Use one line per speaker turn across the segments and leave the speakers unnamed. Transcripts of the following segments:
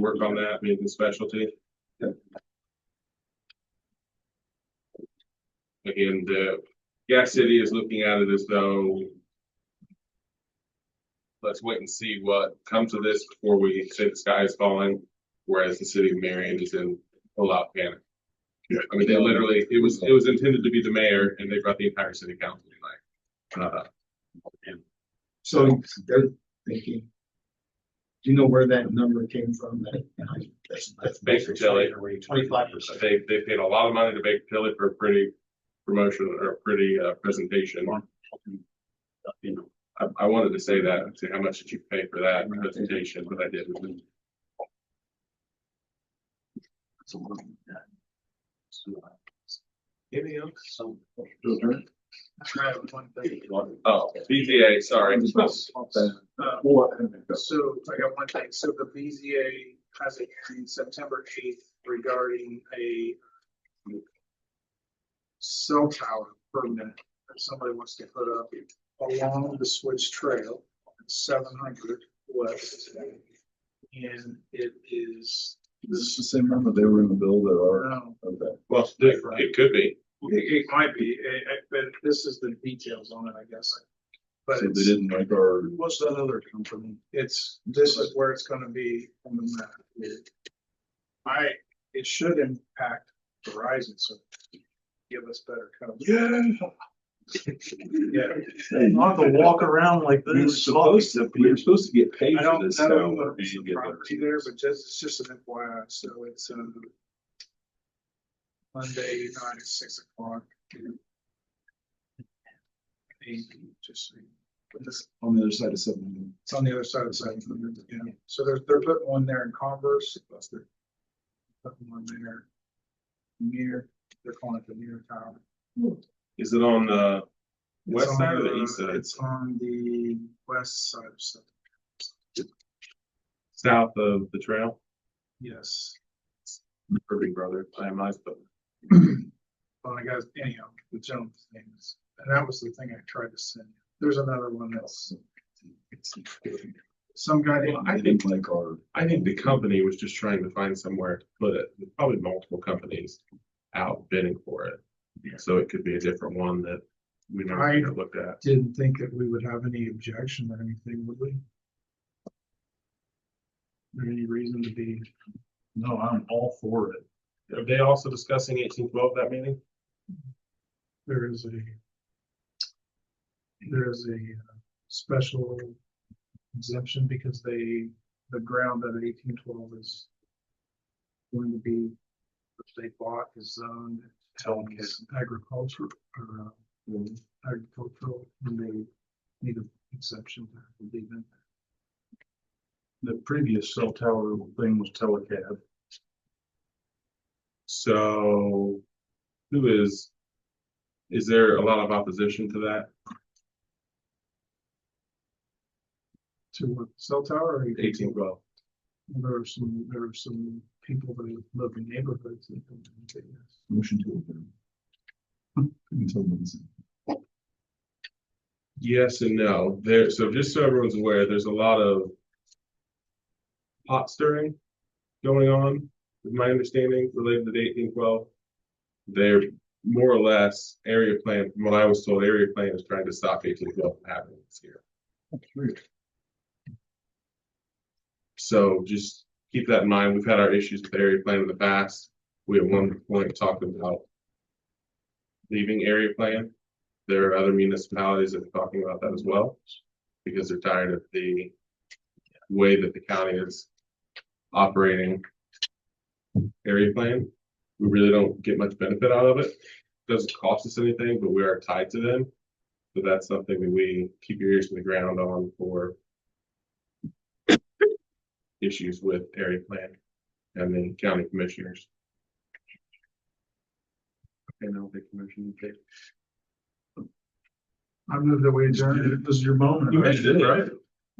work on that, make it specialty. And, uh, Gas City is looking at it as though let's wait and see what comes of this before we say the sky is falling, whereas the city of Marion is in a lot of panic. I mean, they literally, it was, it was intended to be the mayor and they brought the entire city council tonight. Uh,
So they're thinking. Do you know where that number came from? That- That's that's
Baker Tilly.
Twenty-five percent.
They, they paid a lot of money to Baker Tilly for a pretty promotion or a pretty, uh, presentation. I, I wanted to say that, and say how much did you pay for that presentation, but I didn't. Anything else? Oh, BZA, sorry.
Uh, So I got one thing, so the BZA has a hearing September eighth regarding a cell tower permit that somebody wants to put up along the Switch Trail, seven hundred west. And it is,
This is the same number they were in the bill that are.
um,
Okay.
Well, it it could be.
it, it might be, eh, eh, but this is the details on it, I guess. But
So they
it's,
didn't like our.
what's that other company? It's, this is where it's gonna be on the map. I, it should impact Verizon, so give us better coverage.
Yeah.
Yeah, not to walk around like
We were
this.
supposed to, we were supposed to get paid
I
for
don't
this.
know
now,
what's
and
the
get the-
property there, but just, it's just an FYI, so it's, um, Monday night at six o'clock. Hey, Just, so you- but this
On the other side of seven hundred.
It's on the other side of the side, yeah, so they're, they're putting one there in Converse, that's their. Putting one there. Near, they're calling it the near tower.
Is it on, uh,
It's
West
on
side or the east side?
It's on the west side of stuff,
south of the trail?
yes,
Irving Brothers, I am nice, but
well, I guess anyhow, the gentleman's name is, and that was the thing I tried to send, you. there's another one else. Some guy,
Well, I
They
think-
didn't like our.
I think the company was just trying to find somewhere to put it. There's Probably multiple companies out bidding for it.
Yeah.
So it could be a different one that we never
I-
looked at.
didn't think that we would have any objection or anything, would we? Or any reason to be.
No, I'm all for it.
Are they also discussing eighteen twelve that meeting?
there is a there is a uh, special exemption because they, the ground that eighteen twelve is going to be, if they bought is zoned as agriculture or uh,
Mm-hmm.
agricultural, and they need an exemption to leave in.
The previous cell tower thing was telecab.
So who is, is there a lot of opposition to that?
To what, cell tower or?
Eighteen twelve.
There are some, there are some people that live in neighborhoods that don't think this.
Motion to adjourn. Couldn't tell them.
Yes and no. There, so just so everyone's aware, there's a lot of pot stirring going on, is my understanding, related to eighteen twelve. They're more or less area plan, from what I was told, area plan is trying to stop eighteen twelve from happening this year. So just keep that in mind. We've had our issues with area plan in the past. We at one point talked about leaving area plan. There are other municipalities that are talking about that as well, because they're tired of the way that the county is operating area plan. We really don't get much benefit out of it. Doesn't cost us anything, but we are tied to them. So that's something that we keep your ears to the ground on for issues with area plan and the county commissioners. And I'll take commission.
I moved that we adjourned. It was your moment.
You already did it, right?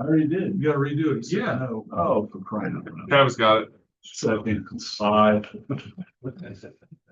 I already did. You gotta redo it.
Yeah.
Oh, for crying out loud.
Travis got it.
Second, aye.